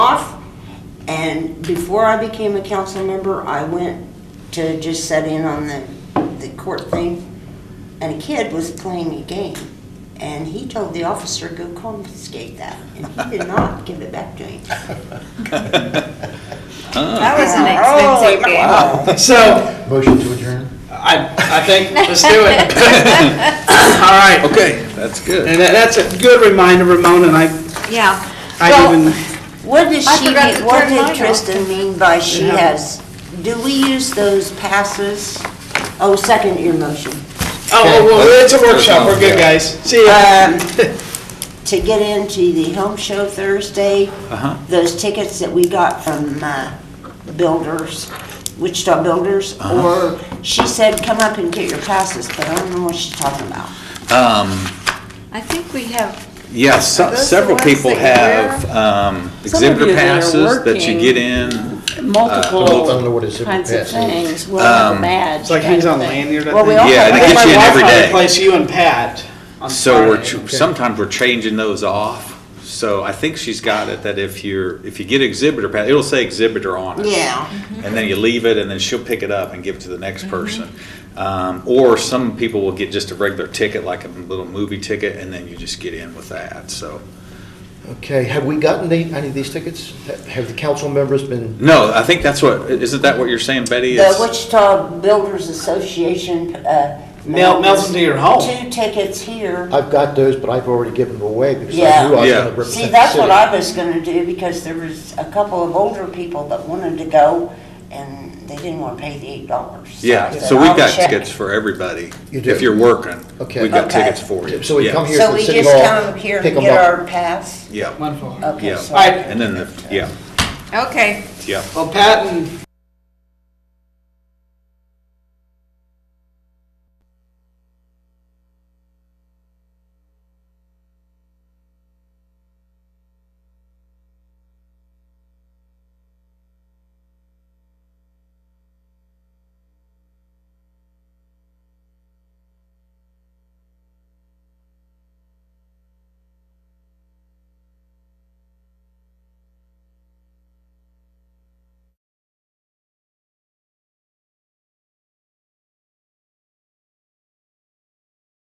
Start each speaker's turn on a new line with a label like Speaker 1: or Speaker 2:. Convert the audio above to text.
Speaker 1: And before I became a council member, I went to just set in on the, the court thing. And a kid was playing a game and he told the officer, go confiscate that. And he did not give it back to him.
Speaker 2: That was an
Speaker 1: Oh,
Speaker 2: expensive game.
Speaker 3: So,
Speaker 4: Motion to adjourn?
Speaker 3: I, I think, let's do it. All right,
Speaker 5: Okay, that's good.
Speaker 3: and that- that's a good reminder, Ramona, and I,
Speaker 2: Yeah.
Speaker 3: I
Speaker 1: Well,
Speaker 3: even,
Speaker 1: What does
Speaker 2: I
Speaker 1: she,
Speaker 2: forgot to
Speaker 1: mean- what
Speaker 2: turn mine
Speaker 1: did
Speaker 2: off.
Speaker 1: Kristen mean by she has? Do we use those passes? Oh, second your motion.
Speaker 3: oh, oh, well, it's a workshop, we're good, guys. See
Speaker 6: Uh,
Speaker 1: Um,
Speaker 3: ya.
Speaker 1: To get into the home show Thursday,
Speaker 5: Uh-huh.
Speaker 1: those tickets that we got from uh, builders, Wichita Builders,
Speaker 5: Uh-huh.
Speaker 1: or she said, come up and get your passes, but I don't know what she's talking about.
Speaker 2: I think we have,
Speaker 5: Yes,
Speaker 2: Are those the
Speaker 5: several
Speaker 2: ones
Speaker 5: people
Speaker 2: that
Speaker 5: have
Speaker 2: you
Speaker 5: um, exhibitor
Speaker 6: you that are
Speaker 5: passes that you get in.
Speaker 6: Uh, multiple
Speaker 4: I don't know what his
Speaker 6: kinds of
Speaker 4: impact is.
Speaker 6: things, well, the badge.
Speaker 3: Um, It's like he's
Speaker 6: kind of
Speaker 3: on
Speaker 6: thing.
Speaker 3: lanyard, I
Speaker 6: Well, we
Speaker 3: think.
Speaker 6: all
Speaker 5: Yeah,
Speaker 6: have
Speaker 5: they
Speaker 3: I
Speaker 6: that.
Speaker 3: think
Speaker 5: get you in
Speaker 3: my wife
Speaker 5: every
Speaker 3: might
Speaker 5: day.
Speaker 3: Replace you and Pat on
Speaker 5: So we're,
Speaker 3: Friday.
Speaker 5: ch- sometimes we're changing those off. So I think she's got it that if you're, if you get exhibitor pass, it'll say exhibitor on it.
Speaker 1: Yeah.
Speaker 5: And then you leave it and then she'll pick it up and give it to the next person. Um, Or some people will get just a regular ticket, like a little movie ticket, and then you just get in with that, so.
Speaker 4: Okay, have we gotten the- any of these tickets? Ha- Have the council members been,
Speaker 5: No, I think that's what, isn't that what you're saying, Betty?
Speaker 1: The
Speaker 5: It's-
Speaker 1: Wichita Builders Association. uh,
Speaker 3: Mail- mails them to your home.
Speaker 1: Two tickets here.
Speaker 4: I've got those, but I've already given them away because
Speaker 1: Yeah.
Speaker 4: I knew I was
Speaker 5: Yeah.
Speaker 4: going to represent the
Speaker 1: See, that's what
Speaker 4: city.
Speaker 1: I was gonna do, because there was a couple of older people that wanted to go, and they didn't wanna pay the eight dollars.
Speaker 5: Yeah, so we've got tickets for everybody.
Speaker 4: You do?
Speaker 5: If you're working,
Speaker 4: Okay.
Speaker 5: we've got
Speaker 1: Okay.
Speaker 5: tickets for you.
Speaker 4: So we
Speaker 5: Yeah.
Speaker 4: come here
Speaker 1: So
Speaker 4: to the
Speaker 1: we
Speaker 4: city
Speaker 1: just
Speaker 4: hall,
Speaker 1: come here
Speaker 4: pick
Speaker 1: and
Speaker 4: them
Speaker 1: get our
Speaker 4: up.
Speaker 1: pass?
Speaker 5: Yeah,
Speaker 3: Wonderful.
Speaker 1: Okay,
Speaker 5: Yeah.
Speaker 1: sorry.
Speaker 3: Alright.
Speaker 5: and then, the yeah,
Speaker 2: okay.
Speaker 5: yeah.
Speaker 3: Well, Pat and